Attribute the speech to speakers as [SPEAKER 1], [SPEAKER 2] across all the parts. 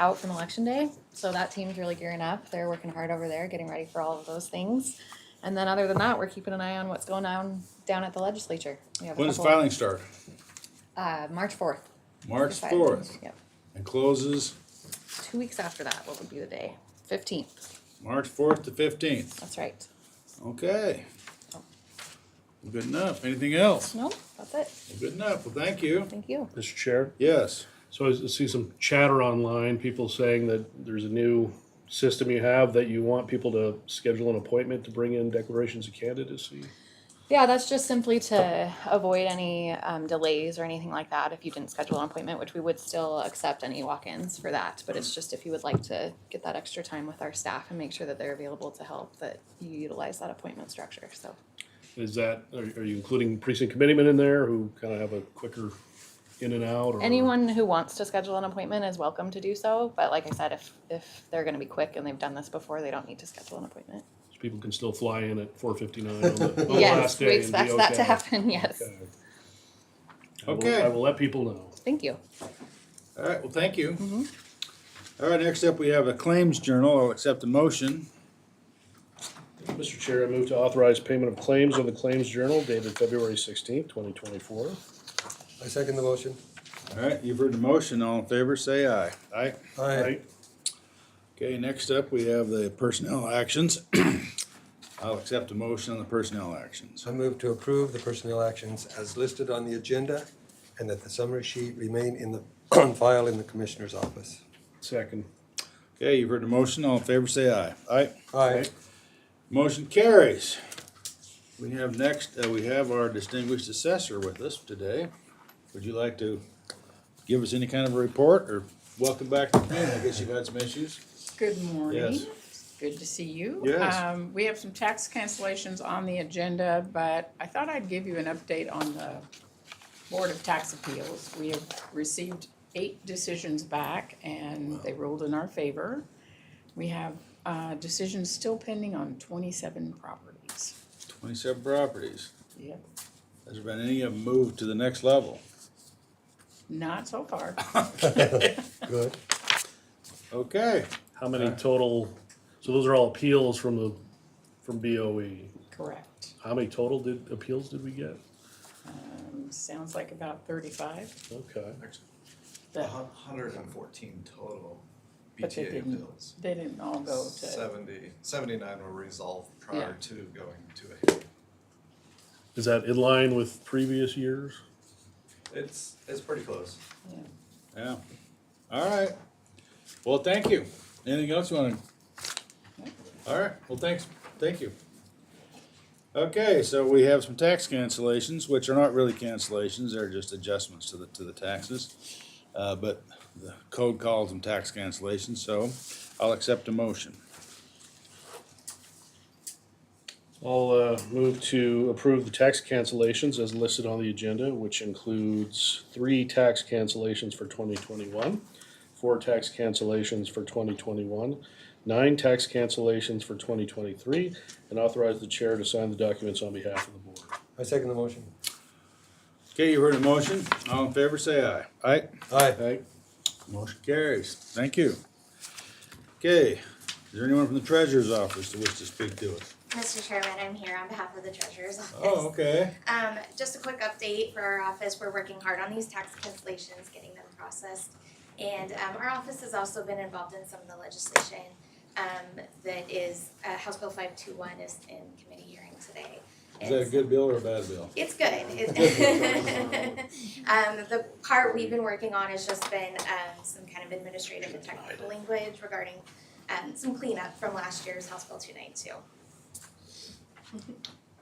[SPEAKER 1] out from election day. So that team's really gearing up. They're working hard over there, getting ready for all of those things. And then other than that, we're keeping an eye on what's going on down at the legislature. We have a
[SPEAKER 2] When does
[SPEAKER 1] couple-
[SPEAKER 2] filing start?
[SPEAKER 1] Uh, March fourth.
[SPEAKER 2] March fourth,
[SPEAKER 1] Yep.
[SPEAKER 2] and closes
[SPEAKER 1] Two weeks after that, what would be the day? Fifteenth,
[SPEAKER 2] March fourth to fifteenth,
[SPEAKER 1] that's right.
[SPEAKER 2] okay. Good enough, anything else?
[SPEAKER 1] No, that's it.
[SPEAKER 2] Good enough, well, thank you,
[SPEAKER 1] Thank you.
[SPEAKER 3] Mr. Chair,
[SPEAKER 2] yes.
[SPEAKER 3] so I see some chatter online, people saying that there's a new system you have that you want people to schedule an appointment to bring in declarations of candidacy.
[SPEAKER 1] Yeah, that's just simply to avoid any um, delays or anything like that if you didn't schedule an appointment, which we would still accept any walk ins for that. But it's just if you would like to get that extra time with our staff and make sure that they're available to help, that you utilize that appointment structure. So,
[SPEAKER 3] Is that, are are you including precinct committeemen in there who kind of have a quicker in and out? or-
[SPEAKER 1] anyone who wants to schedule an appointment is welcome to do so. But like I said, if, if they're going to be quick and they've done this before, they don't need to schedule an appointment.
[SPEAKER 3] So People can still fly in at four fifty-nine on the on the last
[SPEAKER 1] yes, we
[SPEAKER 3] day and be
[SPEAKER 1] expect that to
[SPEAKER 3] okay.
[SPEAKER 1] happen. Yes.
[SPEAKER 3] Okay. I will-
[SPEAKER 2] Okay,
[SPEAKER 3] I
[SPEAKER 2] all
[SPEAKER 3] will let people know.
[SPEAKER 1] Thank you.
[SPEAKER 2] right, well, thank you. All right, next up, we have a claims journal, I'll accept the motion,
[SPEAKER 3] Mr. Chair, I move to authorize payment of claims on the Claims Journal dated February sixteenth, twenty twenty-four.
[SPEAKER 4] I second the motion.
[SPEAKER 2] all right, you've heard the motion, all in favor, say aye. Aye.
[SPEAKER 4] Aye.
[SPEAKER 2] Okay, next up, we have the personnel actions. I'll accept a motion on the personnel actions.
[SPEAKER 4] I move to approve the personnel actions as listed on the agenda and that the summary sheet remain in the, on file in the commissioner's office.
[SPEAKER 3] Second.
[SPEAKER 2] Okay, you've heard the motion, all in favor, say aye. Aye.
[SPEAKER 4] Aye.
[SPEAKER 2] Motion carries. We have next, uh, we have our distinguished assessor with us today. Would you like to give us any kind of a report or welcome back to the community? I guess you've had some issues.
[SPEAKER 5] Good morning.
[SPEAKER 2] Yes.
[SPEAKER 5] Good to see you.
[SPEAKER 2] Yes.
[SPEAKER 5] Um, We have some tax cancellations on the agenda, but I thought I'd give you an update on the Board of Tax Appeals. We have received eight decisions back, and they ruled in our favor. We have uh, decisions still pending on 27 properties.
[SPEAKER 2] Twenty-seven properties.
[SPEAKER 5] Yep.
[SPEAKER 2] Has there been any of them moved to the next level?
[SPEAKER 5] Not so far.
[SPEAKER 4] Good.
[SPEAKER 2] Okay,
[SPEAKER 3] How many total, so those are all appeals from the, from BOE.
[SPEAKER 5] Correct.
[SPEAKER 3] How many total did, appeals did we get?
[SPEAKER 5] Um, Sounds like about 35,
[SPEAKER 3] Okay.
[SPEAKER 5] but
[SPEAKER 2] Uh-huh.
[SPEAKER 6] Hundred and fourteen total
[SPEAKER 5] But they
[SPEAKER 6] BTA
[SPEAKER 5] didn't
[SPEAKER 6] bills.
[SPEAKER 5] they didn't all go to,
[SPEAKER 6] Seventy, seventy-nine were resolved
[SPEAKER 5] Yeah.
[SPEAKER 6] prior to going to a hearing.
[SPEAKER 3] Is that in line with previous years?
[SPEAKER 6] It's, it's pretty close.
[SPEAKER 5] yeah.
[SPEAKER 2] yeah. All right. Well, thank you. Anything else you wanna? All right, well, thanks, thank you. Okay, so we have some tax cancellations, which are not really cancellations, they're just adjustments to the, to the taxes. Uh, but the code calls them tax cancellations, so I'll accept a motion.
[SPEAKER 3] I'll uh, move to approve the tax cancellations as listed on the agenda, which includes three tax cancellations for 2021, four tax cancellations for 2021, nine tax cancellations for 2023, and authorize the chair to sign the documents on behalf of the board.
[SPEAKER 4] I second the motion.
[SPEAKER 2] Okay, you heard the motion, all in favor, say aye. Aye?
[SPEAKER 4] Aye.
[SPEAKER 3] Okay.
[SPEAKER 2] Motion carries, thank you. Okay, is there anyone from the treasurer's office that wishes to speak to us?
[SPEAKER 7] Mr. Chairman, I'm here on behalf of the treasurer's office.
[SPEAKER 2] Oh, okay.
[SPEAKER 7] Um, just a quick update for our office, we're working hard on these tax cancellations, getting them processed. And, um, our office has also been involved in some of the legislation, um, that is, uh, House Bill five two one is in committee hearing today.
[SPEAKER 2] Is that a
[SPEAKER 7] It's-
[SPEAKER 2] good bill or a bad bill?
[SPEAKER 7] It's good. It- Um, the part we've been working on has just been, um, some kind of administrative and technical language regarding, um, some cleanup from last year's House Bill two nine two.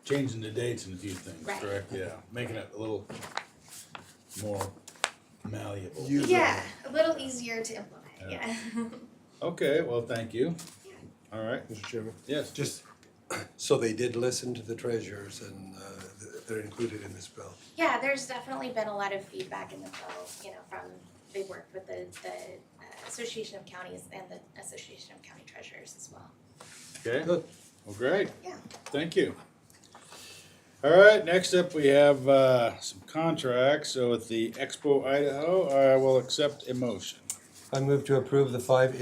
[SPEAKER 2] Changing the dates and a few things,
[SPEAKER 7] Right.
[SPEAKER 2] correct? Yeah, making it a little more malleable.
[SPEAKER 4] You- User.
[SPEAKER 7] Yeah, a little easier to implement,
[SPEAKER 2] Yeah.
[SPEAKER 7] yeah.
[SPEAKER 2] Okay, well, thank you. All right,
[SPEAKER 4] Mr. Chairman.
[SPEAKER 2] yes.
[SPEAKER 4] Just, so they did listen to the treasurers and uh, th- they're included in this bill.
[SPEAKER 7] Yeah, there's definitely been a lot of feedback in the bill, you know, from, they worked with the, the uh, Association of Counties and the Association of County Treasurers as well.
[SPEAKER 2] Okay,
[SPEAKER 4] Good.
[SPEAKER 2] well, great.
[SPEAKER 7] Yeah.
[SPEAKER 2] Thank you. All right, next up, we have uh, some contracts. So with the Expo Idaho, I will accept a motion.
[SPEAKER 4] I move to approve the five